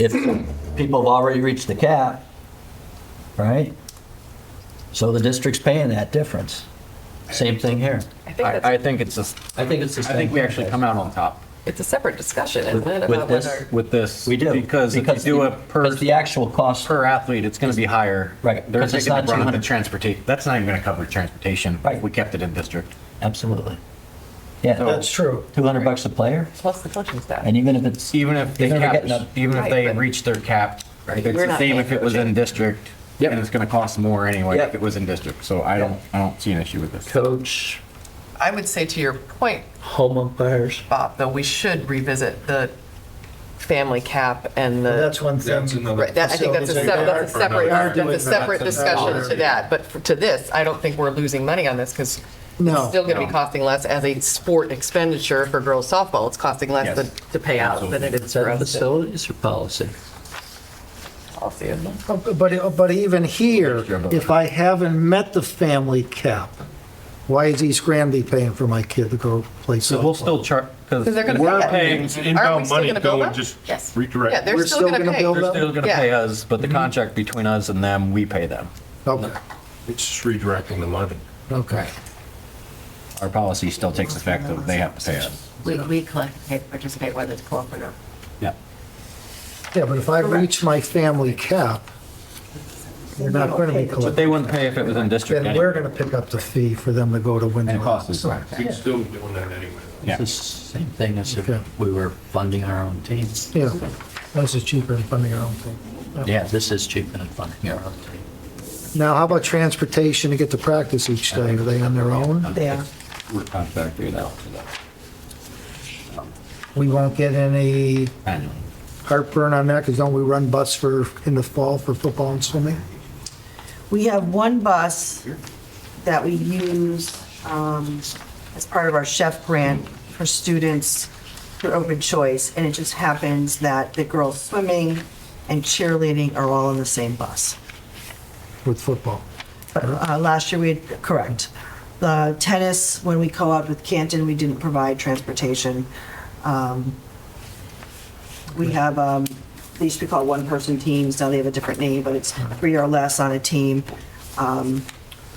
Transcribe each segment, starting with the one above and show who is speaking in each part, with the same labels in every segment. Speaker 1: if people have already reached the cap, right? So the district's paying that difference. Same thing here.
Speaker 2: I think
Speaker 3: I, I
Speaker 2: that's,
Speaker 3: think it's just,
Speaker 1: I think it's the same.
Speaker 3: I think we actually come out on top
Speaker 2: it's a separate discussion, isn't it?
Speaker 1: with
Speaker 2: about
Speaker 1: this-
Speaker 2: whether-
Speaker 3: with this.
Speaker 1: We do.
Speaker 3: Because if you do
Speaker 1: the-
Speaker 3: a per,
Speaker 1: Because the actual cost,
Speaker 3: per athlete, it's going to be higher.
Speaker 1: Right,
Speaker 3: They're
Speaker 1: 'cause it's
Speaker 3: taking the
Speaker 1: not
Speaker 3: brunt of the
Speaker 1: 200.
Speaker 3: transportation. That's not even going to cover transportation. if
Speaker 1: Right.
Speaker 3: We kept it in district.
Speaker 1: absolutely. Yeah,
Speaker 4: That's true.
Speaker 1: 200 bucks a player,
Speaker 2: Plus the coaching staff.
Speaker 1: and even if it's,
Speaker 3: Even if they
Speaker 1: Even if
Speaker 3: cap,
Speaker 1: they're getting
Speaker 3: even if
Speaker 2: Right,
Speaker 3: they
Speaker 2: but-
Speaker 3: reach their cap, it's
Speaker 2: We're
Speaker 3: the
Speaker 2: not
Speaker 3: same
Speaker 2: paying
Speaker 3: if it was in district.
Speaker 5: Yep.
Speaker 3: And it's going to cost more anyway
Speaker 5: Yep.
Speaker 3: if it was in district. So I don't, I don't see an issue with this.
Speaker 5: Coach,
Speaker 6: I would say to your point,
Speaker 4: Home umpires.
Speaker 6: Bob, though, we should revisit the family cap and the.
Speaker 4: That's one thing.
Speaker 7: That's another-
Speaker 6: Right, that- I think that's a, sep- that's a separate, that's a separate discussion to that. But for- to this, I don't think we're losing money on this because it's
Speaker 4: No.
Speaker 6: still going to be costing less as a sport expenditure for girls softball. It's costing less
Speaker 3: Yes.
Speaker 6: to, to pay out than it
Speaker 1: is
Speaker 6: is for
Speaker 1: that
Speaker 6: us.
Speaker 1: facilities or policy?
Speaker 2: policy, isn't it?
Speaker 4: But, but even here, if I haven't met the family cap, why is East Granby paying for my kid to go play softball?
Speaker 3: So we'll still charge, because
Speaker 6: Because they're going to.
Speaker 3: we're paying,
Speaker 7: It's inbound money go and just
Speaker 2: Yes.
Speaker 7: redirect.
Speaker 6: Yeah, they're
Speaker 4: We're
Speaker 6: still going to
Speaker 4: gonna
Speaker 6: pay.
Speaker 4: build
Speaker 3: they're
Speaker 4: up?
Speaker 3: still going to
Speaker 6: Yeah.
Speaker 3: pay us, but the
Speaker 1: Mm-hmm.
Speaker 3: contract between us and them, we pay them.
Speaker 4: Okay,
Speaker 7: It's just redirecting the money.
Speaker 4: okay.
Speaker 3: Our policy still takes effect that they have to pay us.
Speaker 8: We, we collectively participate, whether it's co-op or not.
Speaker 3: Yeah.
Speaker 4: Yeah, but if I reach my family cap, we're not going to be
Speaker 3: But
Speaker 4: collecting.
Speaker 3: they wouldn't pay if it was in district
Speaker 4: Then
Speaker 3: anyway.
Speaker 4: we're going to pick up the fee for them to go to
Speaker 3: And it
Speaker 4: Windsor.
Speaker 3: costs us less.
Speaker 7: We'd still be doing that anyway.
Speaker 3: Yeah.
Speaker 1: It's the same thing as if
Speaker 4: Okay.
Speaker 1: we were funding our own teams.
Speaker 4: Yeah, that's just cheaper than funding your own thing.
Speaker 1: Yeah, this is cheaper than funding our own team.
Speaker 4: Now, how about transportation to get to practice each day? Are they on their own?
Speaker 6: Yeah.
Speaker 3: We're contracted out for that
Speaker 4: We won't get any
Speaker 3: annually.
Speaker 4: heartburn on that because don't we run bus for, in the fall for football and swimming?
Speaker 9: We have one bus that we use um, as part of our chef grant for students for open choice, and it just happens that the girls swimming and cheerleading are all on the same bus.
Speaker 4: with football.
Speaker 9: But uh, last year we, had correct. The tennis, when we co-op with Canton, we didn't provide transportation. Um, We have, um, they used to be called one-person teams, now they have a different name, but it's three or less on a team. Um,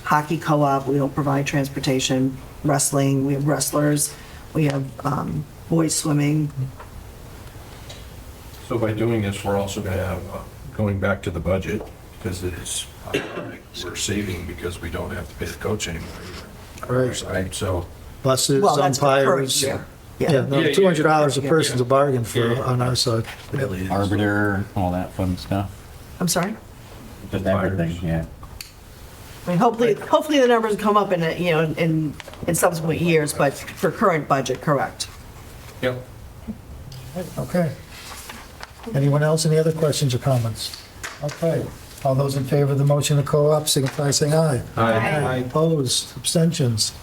Speaker 9: Hockey co-op, we don't provide transportation. Wrestling, we have wrestlers. We have um, boys swimming.
Speaker 7: So by doing this, we're also going to have, uh, going back to the budget, because it is, ironic, we're saving because we don't have to pay the coach anymore. either.
Speaker 4: Right.
Speaker 7: Right, so.
Speaker 4: Buses,
Speaker 9: Well, that's for per
Speaker 4: umpires.
Speaker 9: year.
Speaker 4: Yeah,
Speaker 9: Yeah.
Speaker 4: no, two hundred dollars a person's a bargain for, on our side.
Speaker 3: Arbiter, all that fun stuff.
Speaker 9: I'm sorry?
Speaker 3: Just everything, yeah.
Speaker 9: I mean, hopefully, hopefully the numbers come up in, a- you know, in, in subsequent years, but for current budget, correct.
Speaker 7: Yep.
Speaker 4: Okay. Anyone else, any other questions or comments? Okay, all those in favor of the motion to co-op, signify by saying aye. Aye. Opposed, abstentions,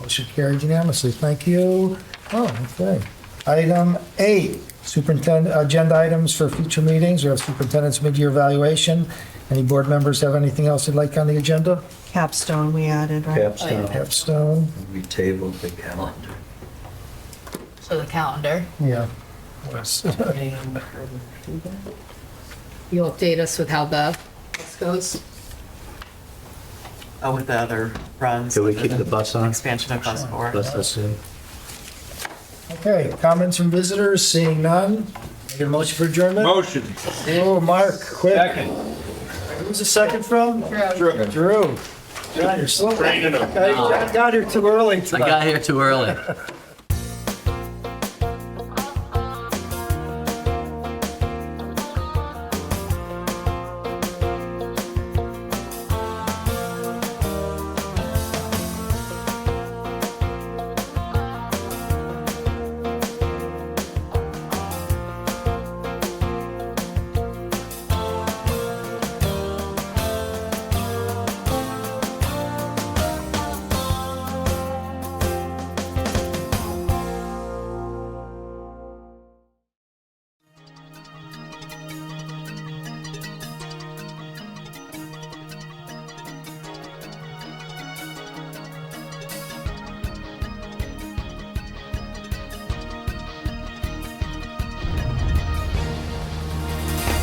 Speaker 4: motion carried unanimously, thank you. Oh, okay. Item eight, superintendent, agenda items for future meetings, we have superintendent's mid-year evaluation. Any board members have anything else they'd like on the agenda?
Speaker 9: Capstone we added, right?
Speaker 4: Capstone,
Speaker 1: we tabled the calendar.
Speaker 8: So the calendar,
Speaker 4: yeah. Yes.
Speaker 8: you'll update us with how the goes?
Speaker 6: Oh, with the other runs.
Speaker 1: Can we keep the bus on?
Speaker 6: Expansion of bus four.
Speaker 1: Let's assume.
Speaker 4: Okay, comments from visitors, seeing none. Need a motion for adjournment?
Speaker 7: Motion.
Speaker 4: Oh, Mark, quick. Who's the second from? Drew. Drew. John, you're slow. I got here too early.
Speaker 1: I got here too early.